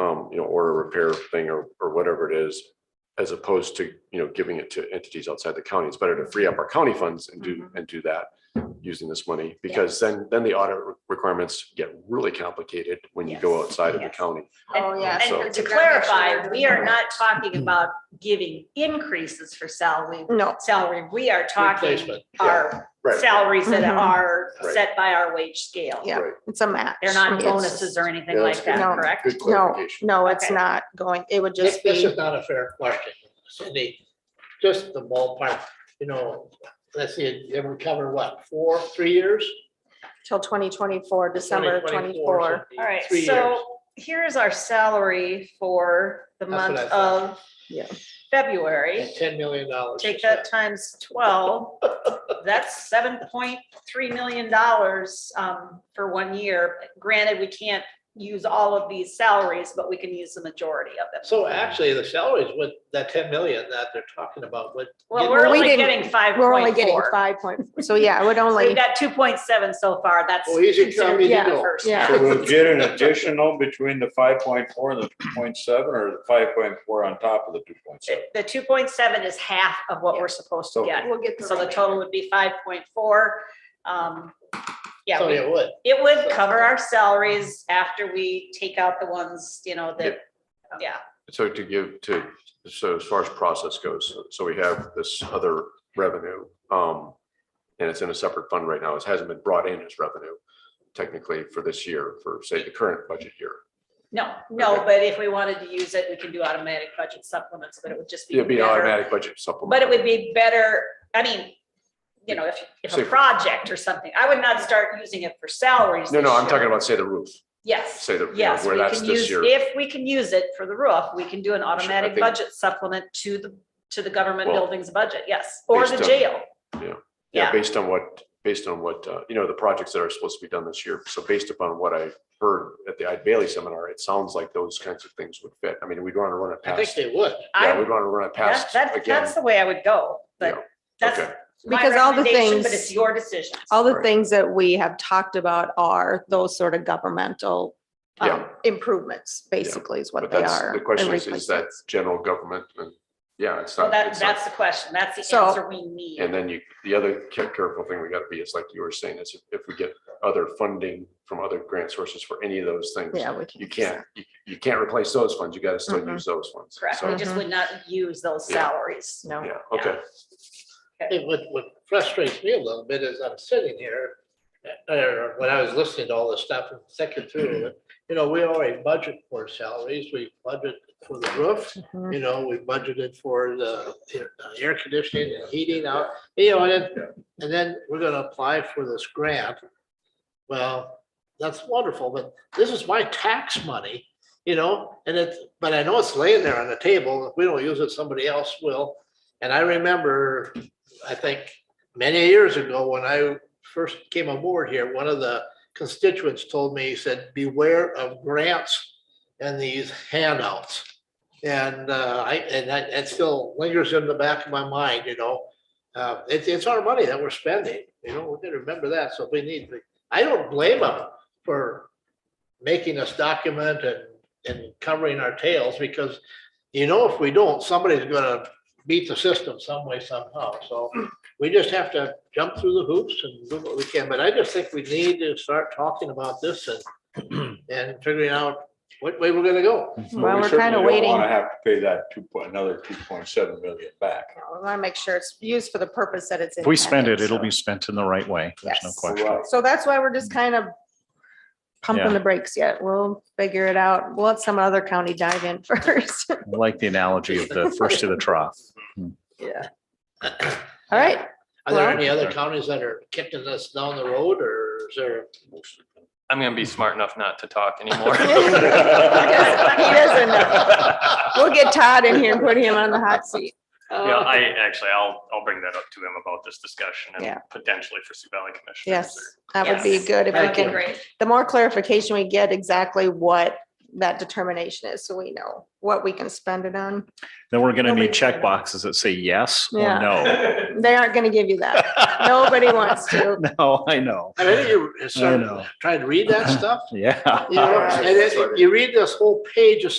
um, you know, or a repair thing or, or whatever it is. As opposed to, you know, giving it to entities outside the county. It's better to free up our county funds and do, Mm-hmm. and do that using this money. Because then, then the audit re- requirements get really complicated when you go Yes, outside of the yes. county. Oh, And- yeah. So- And to clarify, we are not talking about giving increases for salary, No, salary. We are talking Replacement, yeah. our Right. salaries that Mhm. are Right. set by our wage scale. yeah, Right. it's a match. They're not It's- bonuses or anything Yeah, like that's that, good. No. correct? Good No, clarification. no, it's Okay. not going, it would This just this be, is not a fair question, Cindy. Just the ballpark, you know, let's see, it would cover what, four, three years? till twenty twenty-four, December 2024, so twenty-four. it'd be All right, three years. so here's our salary for the That's what month I thought. of Yeah. February. And Ten million dollars. Take that times twelve, that's seven point three million dollars um for one year. Granted, we can't use all of these salaries, but we can use the majority of them. So actually, the salaries with that ten million that they're talking about would. Well, get we're We only didn't- getting five We're only point getting four. five point, so yeah, it would only, We've got two point seven so far, that's. Well, easy come, considered easy the go. first. Yeah. So we'll get an additional between the five point four and the two point seven, or the five point four on top of the two point seven? The two point seven is half of what we're supposed to Okay. get, we'll get so the total would be five point four. Um, yeah, So we- it would. It would cover our salaries after we take out the ones, you know, that, yeah, So to give to, so as far as process goes, so we have this other revenue. um, And it's in a separate fund right now. It hasn't been brought in as revenue technically for this year, for say the current budget year. no, no, Okay. but if we wanted to use it, we can do automatic budget supplements, but it would just be. It'd be an better- automatic budget supplement. But it would be better, I mean, you know, if, if a Safer. project or something, I would not start using it for salaries. No, no, this I'm talking year. about say the roof, Yes, say the, you know, yes, where we that's can this use, year. if we can use it for the roof, we can do an automatic think- budget supplement to the, to the government Well, buildings budget, yes, or based the on- jail. Yeah, yeah. based on what, based on what, uh, you know, the projects that are supposed to be done this year. So based upon what I heard at the Ide Bailey seminar, it sounds like those kinds of things would fit. I mean, we'd want to run it I think past, they would. I yeah, we'd want to run it That, past that, again. that's the way I would go, Yeah, but that's okay. my Because all the recommendation, But things- it's your decision. All the Right. things that we have talked about are those sort of governmental um, Yeah. improvements, basically is But what they that's, are. the question and is, is that replacements. general government and, yeah, it's So not. that, it's not- that's the question. That's the So- answer we need. And then you, the other ca- careful thing we gotta be is like you were saying, is if- if we get other funding from other grant sources for any of those things. Yeah, we You can't. can't, you, you can't replace those funds. You gotta still Mhm. use those ones. Correct. So, We just would not use those Yeah. salaries. No. Yeah, okay. It what what frustrates me a little bit is I'm sitting here, uh, or when I was listening to all this stuff and thinking through it, you know, we already budget for salaries, we budget for the roof, Mhm. you know, we budgeted for the uh, air conditioning and heating out, you know, and, then- and then we're gonna apply for this grant. Well, that's wonderful, but this is my tax money, you know, and it's, but I know it's laying there on the table. If we don't use it, somebody else will. And I remember, I think, many years ago, when I first came aboard here, one of the constituents told me, he said, beware of grants and these handouts. And uh, I, and that, that still lingers in the back of my mind, you know. Uh, it's, it's our money that we're spending, you know, we're gonna remember that, so we need, to- I don't blame them for making us document and, and covering our tails, because you know, if we don't, somebody's gonna beat the system some way somehow, so we just have to jump through the hoops and do what we can, but I just think we need to start talking about this and, and figuring out what way we're gonna go. Well, we're kinda waiting. Want to have to pay that two, point another two point seven million back. Yeah, We want to make sure it's used for the purpose that it's. If we spend it, intended, it'll so. be spent in the right way. There's no Yes. question. Right. So that's why we're just kind of pumping Yeah. the brakes yet. We'll figure it out. We'll let some other county dive in first. I Like the analogy of the first to the trough. Yeah. All right. Are there Well- any other counties that are kicking us down the road or is there? I'm gonna be smart enough not to talk anymore. He doesn't know. We'll get Todd in here and put him on the hot seat. Um, Yeah, I actually, I'll, I'll bring that up to him about this discussion Yeah. and potentially for Sioux Valley Commission. Yes, that would be Yes. good if we That'd be can, great. the more clarification we get exactly what that determination is, so we know what we can spend it on. Then we're gonna Nobody- need check boxes that say yes or Yeah. no. They aren't gonna give you that. Nobody wants to. No, Oh, I know. I think you I started know. trying to read that stuff. Yeah. You know, and it- you read this whole page of